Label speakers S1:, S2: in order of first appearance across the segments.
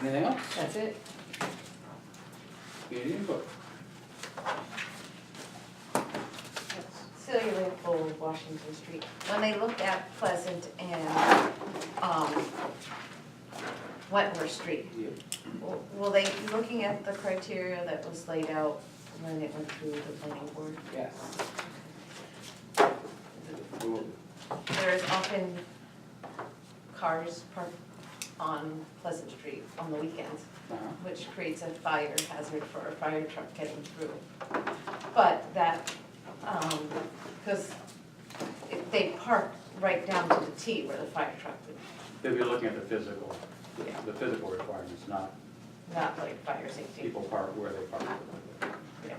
S1: Anything else?
S2: That's it.
S1: Community input.
S3: Celia Leopold, Washington Street. When they looked at Pleasant and um, Wentworth Street,
S1: Yeah.
S3: w- will they, be looking at the criteria that was laid out when it went through the planning board?
S1: Yes. We will-
S3: There is often cars parked on Pleasant Street on the weekends,
S1: uh-huh.
S3: which creates a fire hazard for a fire truck getting through. But that, um, because they park right down to the T where the fire truck would,
S4: They'll be looking at the physical,
S3: Yeah.
S4: the physical requirements, not
S3: not like fire safety.
S4: people park where they park.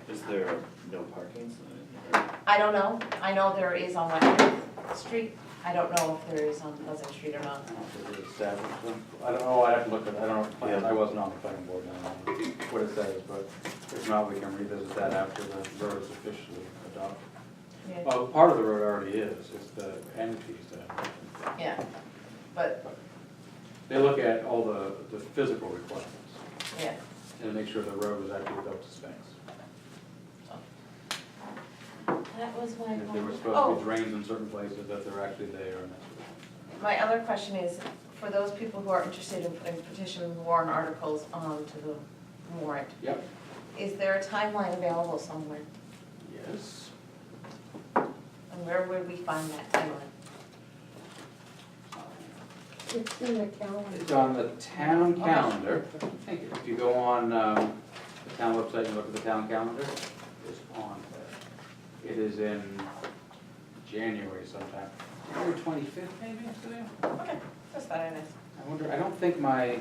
S5: Is there a no parking sign?
S3: I don't know, I know there is on Wentworth Street, I don't know if there is on Pleasant Street or
S4: I
S3: not.
S4: don't know if it's established, I don't know, I'd have to look at, I don't know, if plan-
S5: Yeah.
S4: I wasn't on the planning board, I don't know what it says, but if not, we can revisit that after the road is officially adopted.
S3: Yeah.
S4: Well, part of the road already is, it's the end piece that,
S3: Yeah, but,
S4: they look at all the, the physical requirements
S3: yeah,
S4: and make sure the road was actually built to specs.
S3: that was my.
S4: If they were
S3: Oh.
S4: supposed to be drains in certain places, that they're actually there and that's.
S3: My other question is, for those people who are interested in putting petition warrant articles onto the warrant,
S1: Yep.
S3: is there a timeline available somewhere?
S1: Yes.
S3: And where would we find that timeline?
S2: It's in the calendar.
S1: It's on the town calendar. Thank you. If you go on um, the town website and look at the town calendar, it's on there. It is in January sometime. January twenty-fifth maybe, Sue?
S3: Okay, just thought I'd ask.
S1: I wonder, I don't think my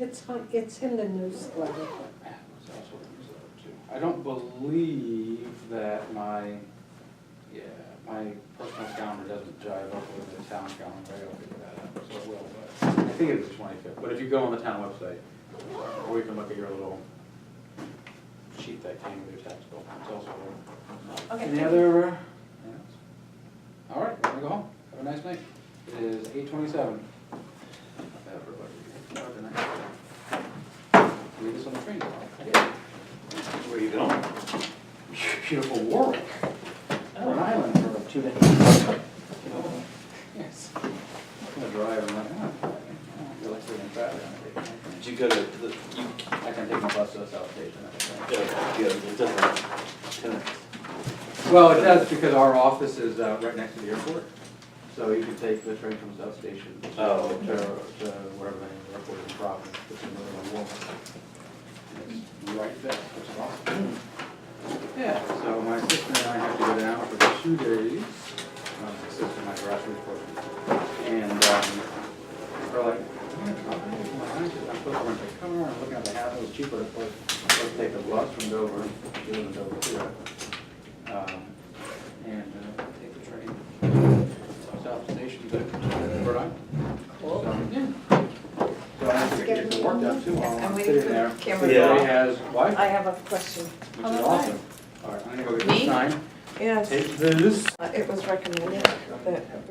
S2: It's on, it's in the newsletter.
S1: So that's what it was up to. I don't believe that my, yeah, my personal calendar doesn't jive up with the town calendar, I'll figure that out, so it will, but I think it's the twenty-fifth, but if you go on the town website, or you can look at your little sheet that came with your tax bill, it's also there.
S3: Okay,
S1: Any
S3: thank
S1: other? anything else? All right, we're gonna go home, have a nice night, it is eight twenty-seven. Leave this on the train tomorrow.
S5: Where are you going? Oh.
S1: Beautiful Warwick. Rhode Island for two days. Yes. I'm gonna drive, I'm like, oh, I feel like we're in Saturday.
S5: Did you go to the, you, uh,
S1: I can take my bus to the South Station. I think.
S5: yeah, it doesn't connect.
S1: Well, it does because our office is uh, right next to the airport, so you can take the train from South Station to, to
S5: Oh.
S1: whatever the airport is in Providence, which is another one. And It's right there, which is awesome. Yeah, so my sister and I have to go down for two days, Um, my sister, my grassroots person, and, um, are like, "Man, I'm supposed to rent a car, I'm looking at the house, it was cheaper to put, let's take the bus from Dover, she lives in Dover too. Um, And uh, take the train, to South Station to Rhode Island.
S3: Cool.
S1: So, yeah. So I have to get the work done too while
S3: I'm
S1: I'm
S3: waiting
S1: sitting
S3: for
S1: there.
S3: the camera
S5: Yeah.
S3: to
S1: Everybody
S3: go.
S1: has Wi-Fi,
S2: I have a question.
S1: which is awesome. All right, I'm gonna go get
S3: Me?
S1: this sign,
S2: Yes,
S1: take this.
S2: it was Uh, recommended that